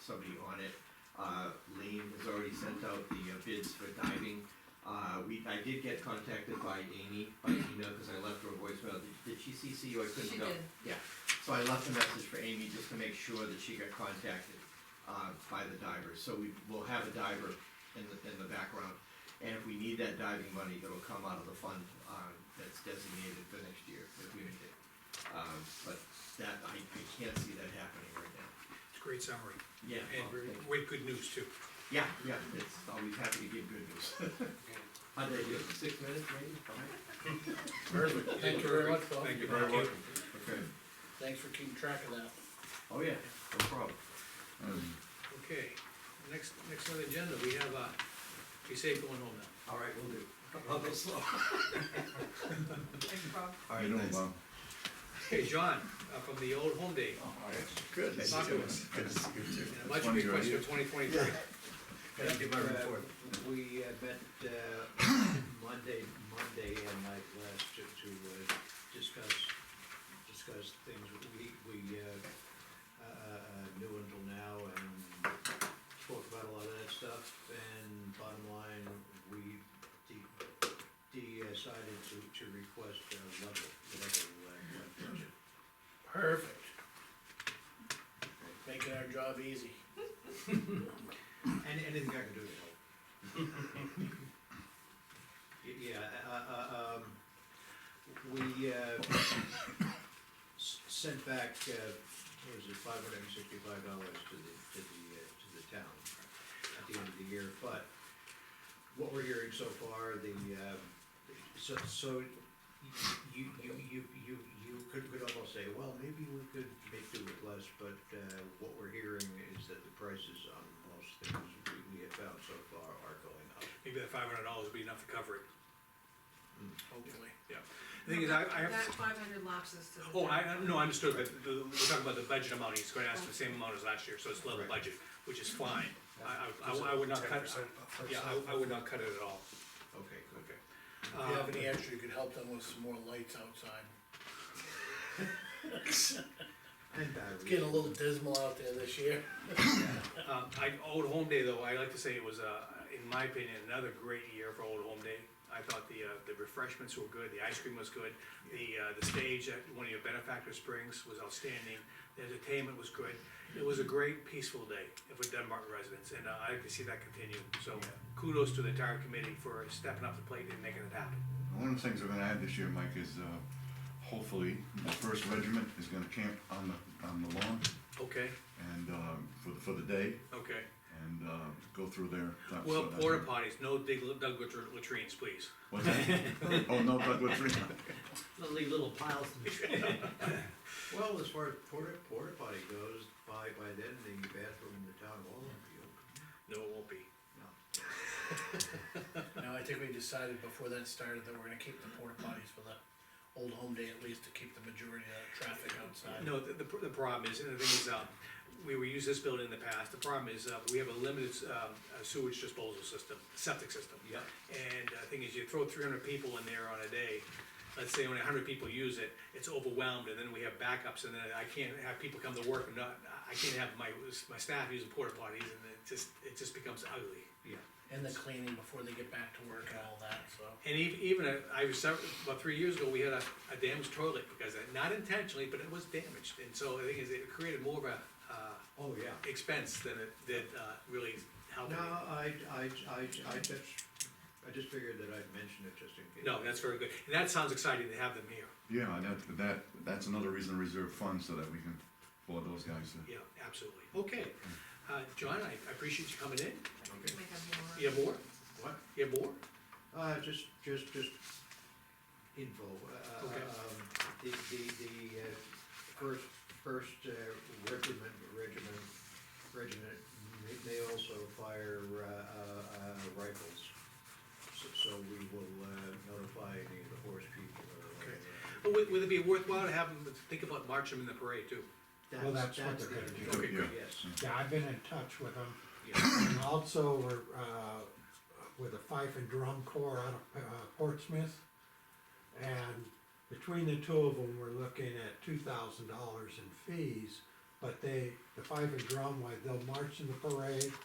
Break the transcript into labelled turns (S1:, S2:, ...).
S1: somebody on it. Uh, Lean has already sent out the uh, bids for diving. Uh, we, I did get contacted by Amy, by email, cause I left her a voicemail, did, did she CC you, I couldn't
S2: She
S1: go.
S2: did.
S1: Yeah, so I left a message for Amy just to make sure that she got contacted, uh, by the diver, so we will have a diver in the, in the background. And if we need that diving money, it'll come out of the fund, uh, that's designated for next year, if we need it. Um, but that, I, I can't see that happening right now.
S3: It's a great summary,
S1: Yeah.
S3: and
S1: well,
S3: very,
S1: thank you.
S3: great good news too.
S1: Yeah, yeah, it's always happy to give good news. How did I do, six minutes maybe, five?
S4: Perfect, thank you very much, Bob.
S3: Thank you
S4: Thank
S3: very much.
S1: Okay,
S4: Thanks for keeping track of that.
S1: oh yeah, no problem.
S5: Mm.
S3: Okay, next, next on the agenda, we have, uh, be safe going home now.
S1: All right, we'll do. I'll go slow.
S2: Thanks, Bob.
S1: All
S5: You
S1: right,
S5: know,
S1: thanks.
S5: Bob.
S3: Hey, John, uh, from the old home day,
S1: All right, good. to see
S3: Talk to
S1: you.
S3: us.
S1: Good to see you too.
S3: and a budget
S5: That's one of your
S3: request for
S5: ideas.
S3: twenty twenty-three.
S1: Gotta give my
S6: Uh,
S1: report.
S6: We uh, met uh, Monday, Monday and night last to, to uh, discuss, discuss things we, we, uh, uh, uh, knew until now and spoke about a lot of that stuff. And bottom line, we de- decided to, to request a level, level, uh, budget.
S4: Perfect. Making our job easy.
S6: And anything I can do to help. Y- Yeah, uh, uh, um, we, uh, s- sent back, uh, what was it, five hundred and sixty-five dollars to the, to the, uh, to the town at the end of the year, but what we're hearing so far, the, uh, so, so you, you, you, you, you could, could almost say, well, maybe we could make do with less, but, uh, what we're hearing is that the prices on most things we, we have found so far are going up.
S3: Maybe that five hundred dollars would be enough to cover it, hopefully, yeah. The thing is, I, I have.
S2: That five hundred lapses to the.
S3: Oh, I, I- no, I understood, but the, we're talking about the budget amount, he's gonna ask for the same amount as last year, so it's level
S6: Right.
S3: budget, which is fine. I, I- I, I would not cut, yeah, I, I would not cut it at all,
S6: Okay, good.
S3: okay.
S4: If you have any extra, you could help them with some more lights outside.
S6: And
S4: It's
S6: batteries.
S4: getting a little dismal out there this year.
S3: Um, I, Old Home Day though, I like to say it was, uh, in my opinion, another great year for Old Home Day. I thought the, uh, the refreshments were good, the ice cream was good, the, uh, the stage at one of your benefactor springs was outstanding, the entertainment was good. It was a great peaceful day for Dunbar residents, and uh, I like to see that continue, so kudos to the entire committee for stepping up the plate and making it happen.
S5: One of the things we're gonna add this year, Mike, is, uh, hopefully, the first regiment is gonna camp on the, on the lawn
S3: Okay,
S5: and, uh, for, the- for the day
S3: okay. uh,
S5: and, uh, go through there.
S3: Well, porta potties, no dig, dug lat- latrines, please.
S5: What's that? Oh, no, but what's three?
S6: Not leave little piles. Well, as far as porta, porta potty goes, by, by then, the bathroom in the town hall will be open.
S3: No, it won't be.
S4: No, I think we decided before that started that we're gonna keep the porta potties for the old home day at least to keep the majority of the traffic outside.
S3: No, the, the pr- the problem is, and the thing is, um, we, we used this building in the past, the problem is, uh, we have a limited, um, uh, sewage disposal system, septic system.
S6: Yeah.
S3: And the thing is, you throw three hundred people in there on a day, let's say only hundred people use it, it's overwhelmed, and then we have backups, and then I can't have people come to work and not, I can't have my, my staff using porta potties, and it just, it just becomes ugly.
S6: Yeah.
S4: And the cleaning before they get back to work and all that, so.
S3: And even, even, uh, I was, sev- about three years ago, we had a, a damaged toilet, because, it- not intentionally, but it was damaged, and so the thing is, it created more of a, uh,
S6: Oh, yeah.
S3: expense than it did uh, really help.
S6: No,
S3: it.
S6: I, I, I, I just, I just figured that I'd mention it just in case.
S3: No, that's very good. And that sounds exciting to have them here.
S5: Yeah, and that, that, that's another reason to reserve funds so that we can afford those guys to.
S3: Yeah, absolutely. Okay. Uh, John, I I appreciate you coming in.
S6: Okay.
S2: Make up more.
S3: You have more?
S6: What?
S3: You have more?
S6: Uh, just, just, just info, uh,
S3: Okay.
S6: um, the, the, the, uh, first, first uh, regiment, regiment, regiment, they- they also fire, uh, uh, uh, rifles. So, so we will, uh, notify any of the horse people or.
S3: Okay.
S6: uh,
S3: But would would it be worthwhile to have them, think about marching them in the parade too?
S7: Well, that's what they're
S6: the-
S7: gonna
S5: do. Okay, good.
S6: Yes,
S7: Yeah, I've been in touch with them,
S6: yeah,
S7: and also we're, uh, with a fife and drum corps out of uh, Portsmouth. And between the two of them, we're looking at two thousand dollars in fees But they, the five and drum, like, they'll march in the parade,